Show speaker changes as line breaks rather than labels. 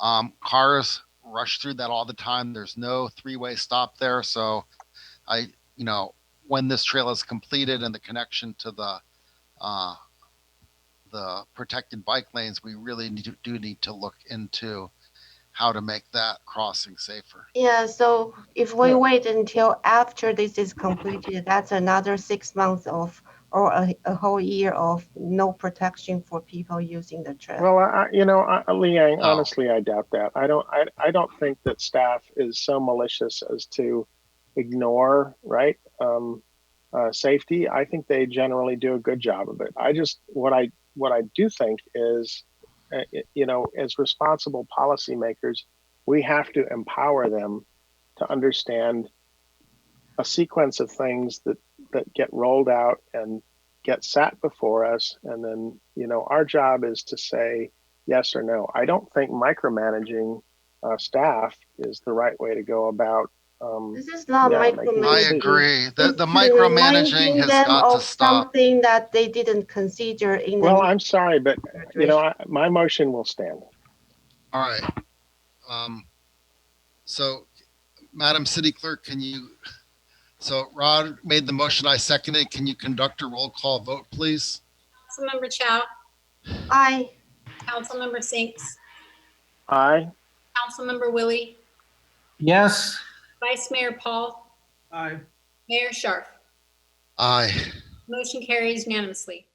Um, cars rush through that all the time. There's no three way stop there. So I, you know, when this trail is completed and the connection to the, uh, the protected bike lanes, we really need to, do need to look into how to make that crossing safer.
Yeah, so if we
Yeah.
wait until after this is completed, that's another six months of, or a, a whole year of no protection for people using the trail.
Well, I, I- you know, I, I- Liang,
Oh.
honestly, I doubt that. I don't, I, I don't think that staff is so malicious as to ignore, right? Um, uh, safety. I think they generally do a good job of it. I just, what I, what I do think is, uh, it- you know, as responsible policymakers, we have to empower them to understand a sequence of things that, that get rolled out and get sat before us and then you know our job is to say yes or no i don't think micromanaging uh, staff is the right way to go about um,
This is not
Yeah, like-
I
micromanaging.
agree. The,
It's
the
reminding
micromanaging has
them
got
of
to stop.
Something that they didn't consider in
well
the.
i'm sorry but you know I, my motion will stand
All right. Um, so Madam City Clerk, can you, so Rod made the motion, I seconded. Can you conduct a roll call vote, please?
Councilmember Chow,
I,
Councilmember Sinks,
i
Councilmember Willie,
Yes.
Vice Mayor Paul,
Aye.
Mayor Sharp.
Aye.
Motion carries unanimously.